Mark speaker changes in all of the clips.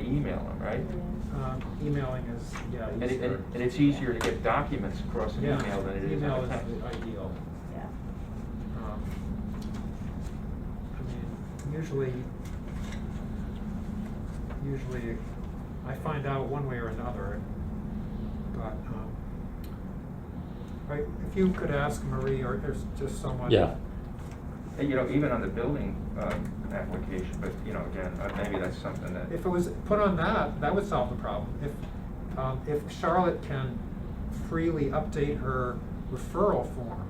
Speaker 1: email them, right?
Speaker 2: Um, Emailing is, yeah,
Speaker 1: And, it-
Speaker 2: easier.
Speaker 1: and and it's easier to get documents across an
Speaker 2: Yeah,
Speaker 1: email than it is
Speaker 2: Email
Speaker 1: on a
Speaker 2: is E.
Speaker 1: text.
Speaker 2: ideal.
Speaker 3: Yeah.
Speaker 2: Um, I mean, usually, usually I find out one way or another, but, um, right, if you could ask Marie or there's just someone.
Speaker 4: Yeah.
Speaker 1: And, you know, even on the building, um, application, but, you know, again, uh, maybe that's something that.
Speaker 2: If it was put on that, that would solve the problem. If, um, if Charlotte can freely update her referral form,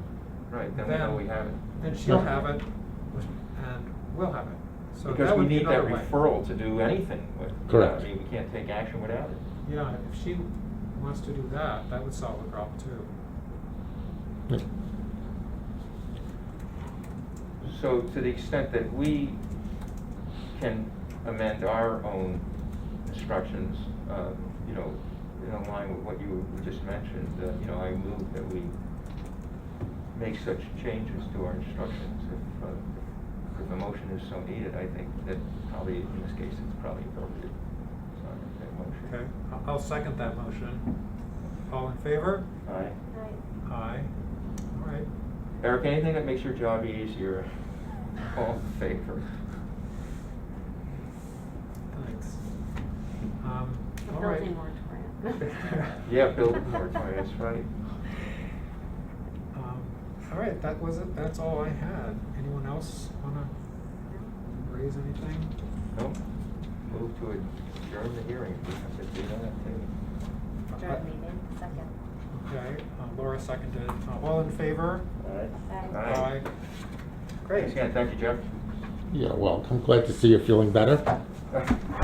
Speaker 1: Right, then we know we have it.
Speaker 2: then she'll
Speaker 4: Yeah.
Speaker 2: have it and we'll have it. So
Speaker 1: Because
Speaker 2: that
Speaker 1: we
Speaker 2: would be
Speaker 1: need that
Speaker 2: another way.
Speaker 1: referral to do anything with. you know,
Speaker 4: Correct.
Speaker 1: I mean, we can't take action without it.
Speaker 2: Yeah, if she wants to do that, that would solve the problem too.
Speaker 4: Yeah.
Speaker 1: So to the extent that we can amend our own instructions, uh, you know, in line with what you just mentioned, uh, you know, I move that we make such changes to our instructions if, uh, if a motion is so needed, I think that probably, in this case, it's probably appropriate. So I make that motion.
Speaker 2: Okay, I- I'll second that motion. All in favor?
Speaker 1: Aye.
Speaker 2: Aye. All right.
Speaker 1: Eric, anything that makes your job easier, all in favor?
Speaker 2: Thanks. Um,
Speaker 3: The
Speaker 2: all right.
Speaker 3: building moratorium.
Speaker 1: Yeah, building moratorium, that's right.
Speaker 2: Um, All right, that was it, that's all I had. Anyone else wanna raise anything?
Speaker 1: No, move to adjourn the hearing, we have to do that,
Speaker 3: Adjourn meeting, second.
Speaker 2: Okay, uh, Laura seconded. Uh, All in favor?
Speaker 1: too.
Speaker 3: Aye.
Speaker 2: Aye.
Speaker 1: Great, again, thank you, Jeff.
Speaker 4: Yeah, well, I'm glad to see you're feeling better.